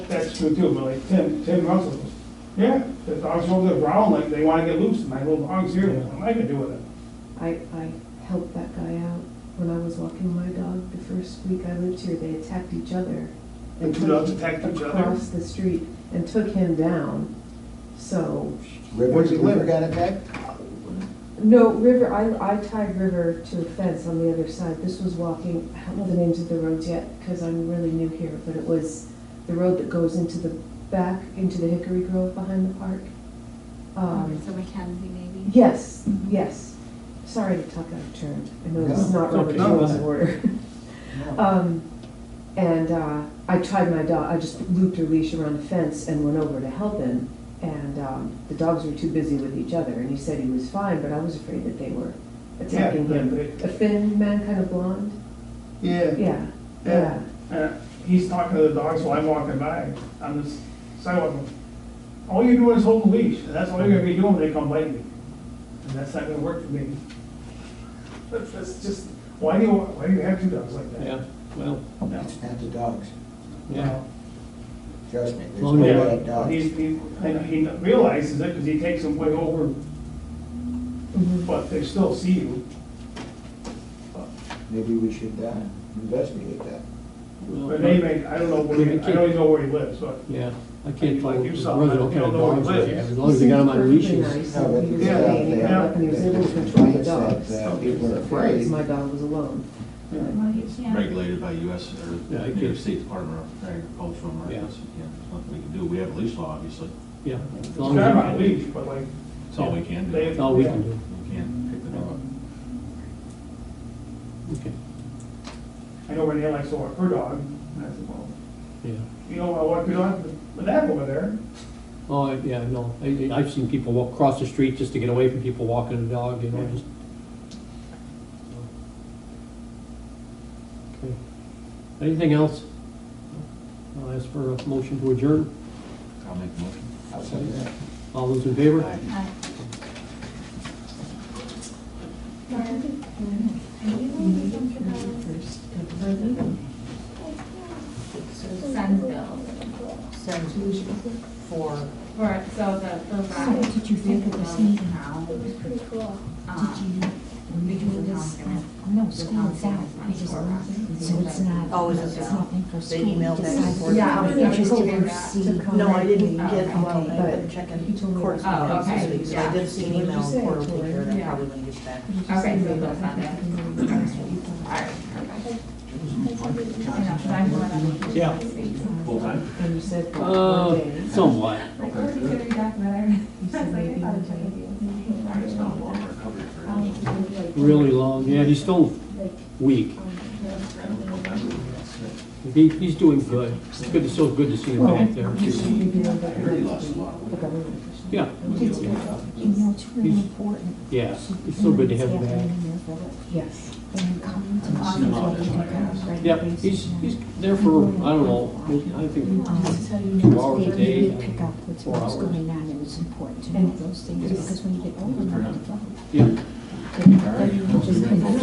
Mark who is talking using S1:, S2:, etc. S1: that's true too, but like Tim, Tim Russell, goes, yeah, the dogs over the ground, like they wanna get loose, and I little dog's here, what am I gonna do with it?
S2: I, I helped that guy out when I was walking my dog the first week I lived here, they attacked each other.
S1: The two dogs attacked each other?
S2: Across the street and took him down, so,
S3: River,
S4: Where'd you live?
S3: River got attacked?
S2: no, River, I, I tied River to a fence on the other side, this was walking, I don't know the names of the roads yet, cause I'm really new here, but it was the road that goes into the back, into the Hickory Grove behind the park. Um,
S5: So Mackenzie maybe?
S2: Yes, yes. Sorry to talk out of turn. I know this is
S3: No,
S1: it's
S2: not
S1: okay.
S2: Robert's rules of order. Um, And uh, I tried my dog, I just looped her leash around the fence and went over to help him. And um, the dogs were too busy with each other, and he said he was fine, but I was afraid that they were attacking
S1: Yeah,
S2: him.
S1: they-
S2: A thin man, kind of blonde?
S1: Yeah.
S2: Yeah,
S1: Yeah.
S2: yeah.
S1: Uh, He's talking to the dogs while I'm walking by on this sidewalk. All you're doing is holding leash, and that's all you're gonna be doing when they come bite me. And that's not gonna work for me. That's, that's just, why do you, why do you have two dogs like that?
S4: Yeah, well,
S1: No.
S3: It's not the dogs,
S4: yeah.
S3: trust me, there's
S4: Well,
S3: no
S4: yeah.
S3: bad
S1: Oh, Yeah,
S3: dogs.
S1: he's, he, and he realizes it, cause he takes them way over,
S2: Mhm.
S1: but they still see you.
S3: Maybe we should uh, investigate that.
S4: well,
S1: But they may, I don't know where, he- I don't even know where he lives, but
S4: Yeah, I can't
S1: Like
S4: tell
S1: you
S4: whether
S1: saw,
S4: they're
S1: you don't know where
S4: dogs
S1: it
S4: or
S1: lives.
S4: as long as they got them on
S2: He
S4: leashes.
S2: seemed perfectly nice,
S1: Yeah,
S2: and he was
S1: yeah.
S2: up and he was able to control the dogs.
S3: Yeah.
S2: He was afraid, my dog was alone.
S5: Well, you can't-
S6: regulated by US
S4: Yeah, I
S6: or
S4: get
S6: New
S4: it.
S6: State Department of Agriculture, right?
S4: Yeah.
S6: That's- yeah, There's nothing we can do. We have a leash law, obviously.
S4: Yeah. as
S1: he's
S4: long
S1: got
S4: as
S1: him
S4: they
S1: on a
S4: can-
S1: leash, but like,
S6: That's all we can do.
S1: They-
S4: That's all we can do,
S6: We can't pick them up.
S4: okay,
S1: I know Renee likes to walk her dog, and I said, well,
S4: yeah.
S1: you know, I walk your dog with that over there.
S4: Oh, I- yeah, no, I, I- I've seen people walk, cross the street just to get away from people walking the dog, you know,
S1: Yeah.
S4: just. Okay. Anything else? I'll ask for a motion to adjourn,
S6: I'll make a motion.
S3: I'll say that.
S4: all those in favor?
S5: Hi. uh,
S2: First, and then-
S5: Sunville.
S7: So, for,
S5: For, so the, the ride. Um,
S7: did you think of the sneak?
S8: pretty cool.
S7: um,
S5: Because
S7: Because
S5: the
S7: the
S5: town's gonna-
S8: No,
S5: the town's
S8: school's
S5: gonna
S8: out, I
S5: have
S8: just,
S5: more hours.
S8: so it's not,
S7: Oh, is it
S8: it's
S7: so?
S8: nothing for
S7: They
S8: school. We
S7: emailed back and
S8: decided
S7: forth.
S8: we
S5: Yeah,
S8: were
S5: yeah, we
S8: interested
S5: did
S8: in
S5: that.
S8: seeing.
S7: No, I didn't
S5: Oh,
S7: get, well,
S8: okay.
S7: I've been checking
S2: He told me-
S7: courts
S5: Oh,
S7: and things
S5: okay,
S7: this week, so I
S5: yeah.
S7: did see an
S2: What did you
S7: email
S2: say,
S7: for a week here,
S5: Yeah.
S7: that probably when it gets back.
S5: Okay, so that's not it. Alright, perfect. And that's what I'm going on.
S4: Yeah.
S6: Full time?
S2: And you said that one
S4: Uh,
S2: day.
S4: somewhat.
S5: Like, where's the jury documentary? I was like, I thought I'd check with you.
S6: I just found a long recovery for him.
S4: Really long, yeah, he's still weak.
S6: Randomly November, that's it.
S4: He, he's doing good. It's good, it's so good to see him back there.
S6: I heard he lost a lot of weight.
S4: Yeah,
S6: We'll get him up.
S8: You know, it's really
S4: He's-
S8: important.
S4: yeah, it's so good to have him back.
S2: Yes.
S8: And coming to
S6: I've seen him out, Oh, that's why I asked.
S4: Yeah, he's, he's there for, I don't know, I think two hours a day,
S8: Pick up what's
S4: four hours.
S8: what's going on, and it's important to know those things, because when you get older, you
S4: Yeah.
S8: don't.